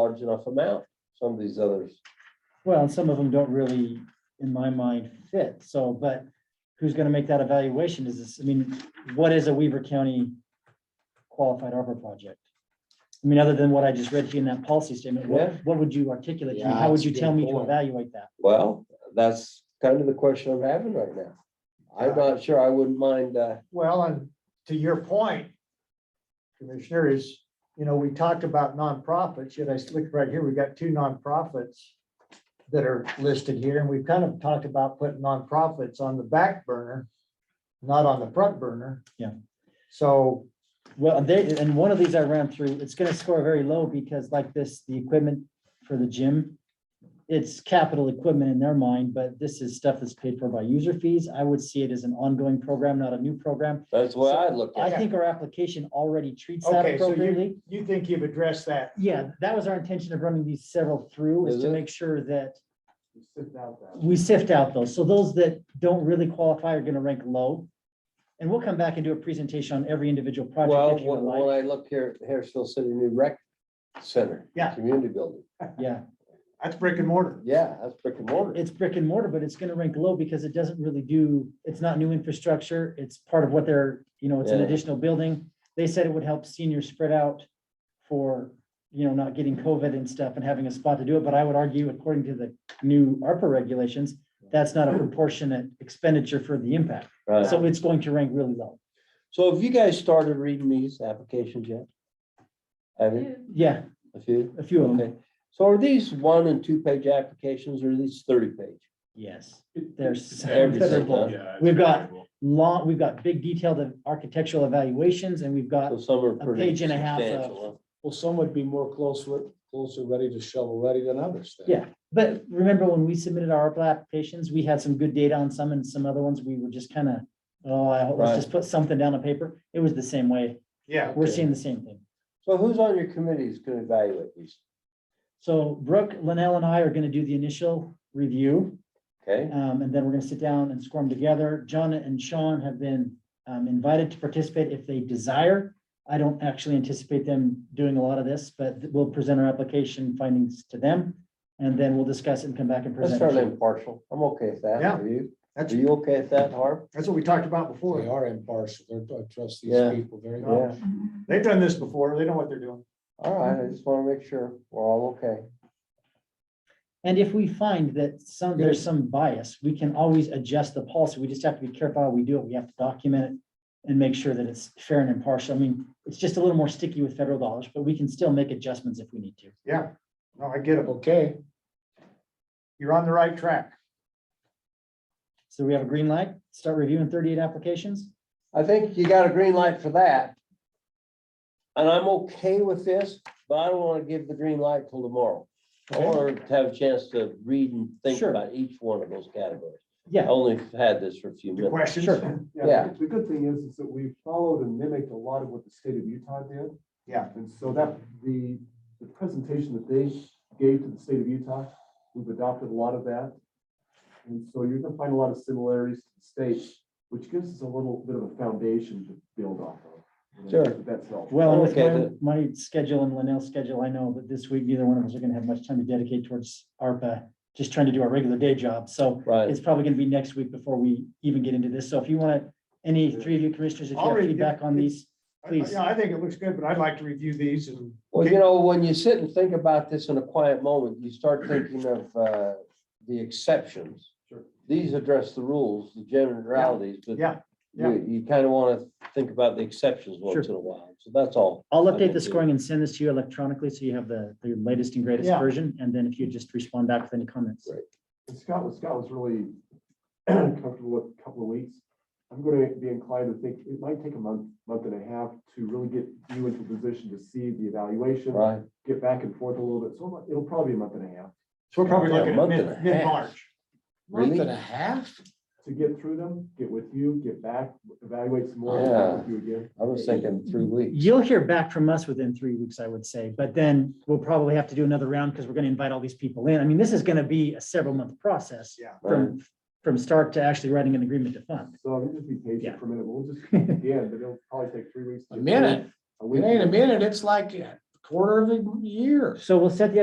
large enough amount, some of these others. Well, some of them don't really, in my mind, fit, so, but who's gonna make that evaluation? Is this, I mean, what is a Weaver County qualified arbor project? I mean, other than what I just read to you in that policy statement, Yeah. what, what would you articulate? to me? Yeah, How would that's a you tell good me to point. evaluate that? Well, that's kind of the question I'm having right now. I'm not sure I wouldn't mind, uh, Well, and to your point, Commissioner, is, you know, we talked about nonprofits, yet I look right here, we've got two nonprofits that are listed here, and we've kind of talked about putting nonprofits on the back burner, not on the front burner. Yeah. So, Well, they, and one of these I ran through, it's gonna score very low because like this, the equipment for the gym. It's capital equipment in their mind, but this is stuff that's paid for by user fees. I would see it as an ongoing program, not a new program. that's what I'd look I at. think our application already treats that Okay, so you- appropriately. you think you've addressed that? Yeah, that was our intention of running these several through is Is to it? make sure that we sift out those. So those that don't really qualify are gonna rank low. And we'll come back and do a presentation on every individual Well, project if you when, would when like. I look here, at Harrisville City New Rec Center. Yeah. Community building. Yeah. That's brick and mortar. Yeah, that's brick and mortar. it's brick and mortar, but it's gonna rank low because it doesn't really do, it's not new infrastructure. It's part of what they're, you know, it's an Yeah. additional building. They said it would help seniors spread out for, you know, not getting COVID and stuff and having a spot to do it. But I would argue, according to the new ARPA regulations, that's not a proportionate expenditure for the impact. Right. So it's going to rank really low. So have you guys started reading these applications yet? Have you? Yeah, A few? a few of them. Okay. So are these one and two page applications or are these thirty page? Yes, they're Everything, huh? several. We've got long, we've got big detailed architectural evaluations and we've got So some are pretty. page and a half of- substantial, huh? Well, some would be more close, re- closer ready to shovel ready than others. then. Yeah, but remember when we submitted our ARPA applications, we had some good data on some and some other ones, we were just kind of, oh, I hope, let's Right. just put something down on paper. It was the same way. Yeah. We're Okay. seeing the same thing. So who's on your committee is gonna evaluate these? So Brooke, Linnell and I are going to do the initial review. Okay, um, and then we're going to sit down and score them together. John and Sean have been um, invited to participate if they desire. I don't actually anticipate them doing a lot of this, but we'll present our application findings to them. And then we'll discuss it and come back and let's present. start it. impartial. I'm okay with that. Yeah. Are you? Are That's, you okay with that, Harv? that's what we talked about They before. are impartial. They're, I trust these Yeah. people very much. Yeah, They've done this before. They know what they're doing. all right. I just wanna make sure we're all okay. And if we find that some, there's some bias, we can always adjust the policy. We just have to be careful how we do it. We have to document it and make sure that it's fair and impartial. I mean, it's just a little more sticky with federal dollars, but we can still make adjustments if we need to. Yeah. No, I get it. Okay, You're on the right track. So we have a green light, start reviewing thirty-eight applications. I think you got a green light for that. And I'm okay with this, but I don't wanna give the green light till tomorrow. I Okay. wanna have a chance to read and think Sure. about each one of those categories. I Yeah, only had this for a few The minutes. questions. Uh, Sure. Yeah. Yeah, the good thing is, is that we followed and mimicked a lot of what the state of Utah did. Yeah. And so that, the, the presentation that they gave to the state of Utah, we've adopted a lot of that. And so you're gonna find a lot of similarities to the state, which gives us a little bit of a foundation to build off of. Sure. That's helpful. well, and with Okay, my- then. my schedule and Linnell's schedule, I know that this week neither one of us are gonna have much time to dedicate towards ARPA, just trying to do our regular day job. So Right, It's probably gonna be next week before we even get into this. So if you want, to, any three of you commissioners, if you I'll have read it. feedback on these, I- I- Please. Yeah, I think it looks good, but I'd like to review these and. well, you know, when you sit and think about this in a quiet moment, you start thinking of, uh, the exceptions. Sure. These address the rules, the generalities, but Yeah, yeah. you, you kinda wanna think about the exceptions once in a while, so that's all. I'll I update will do. the scoring and send this to you electronically, so you have the, the latest and greatest Yeah. version, and then if you just respond back with any comments. Right. And Scott was, Scott was really comfortable with a couple of weeks. I'm gonna be inclined to think it might take a month, month and a half to really get you into a position to see the evaluation. Right, get back and forth a little bit, so it'll- it'll probably be a month and a half So we're probably Yeah, a looking at month and a mid, half. mid-March. month Really? and a half? to get through them, get with you, get back, evaluate some more, Yeah. get with you again. I was thinking three weeks. You'll hear back from us within three weeks, I would say, but then we'll probably have to do another round, because we're gonna invite all these people in. I mean, this is gonna be a several month process. Yeah. From, from start to actually writing an agreement to fund. So I'm just be Yeah. patient for a minute, we'll just, again, but it'll probably take three weeks. to A get through, minute? A It week. ain't a minute. It's like a quarter of a year. So we'll set the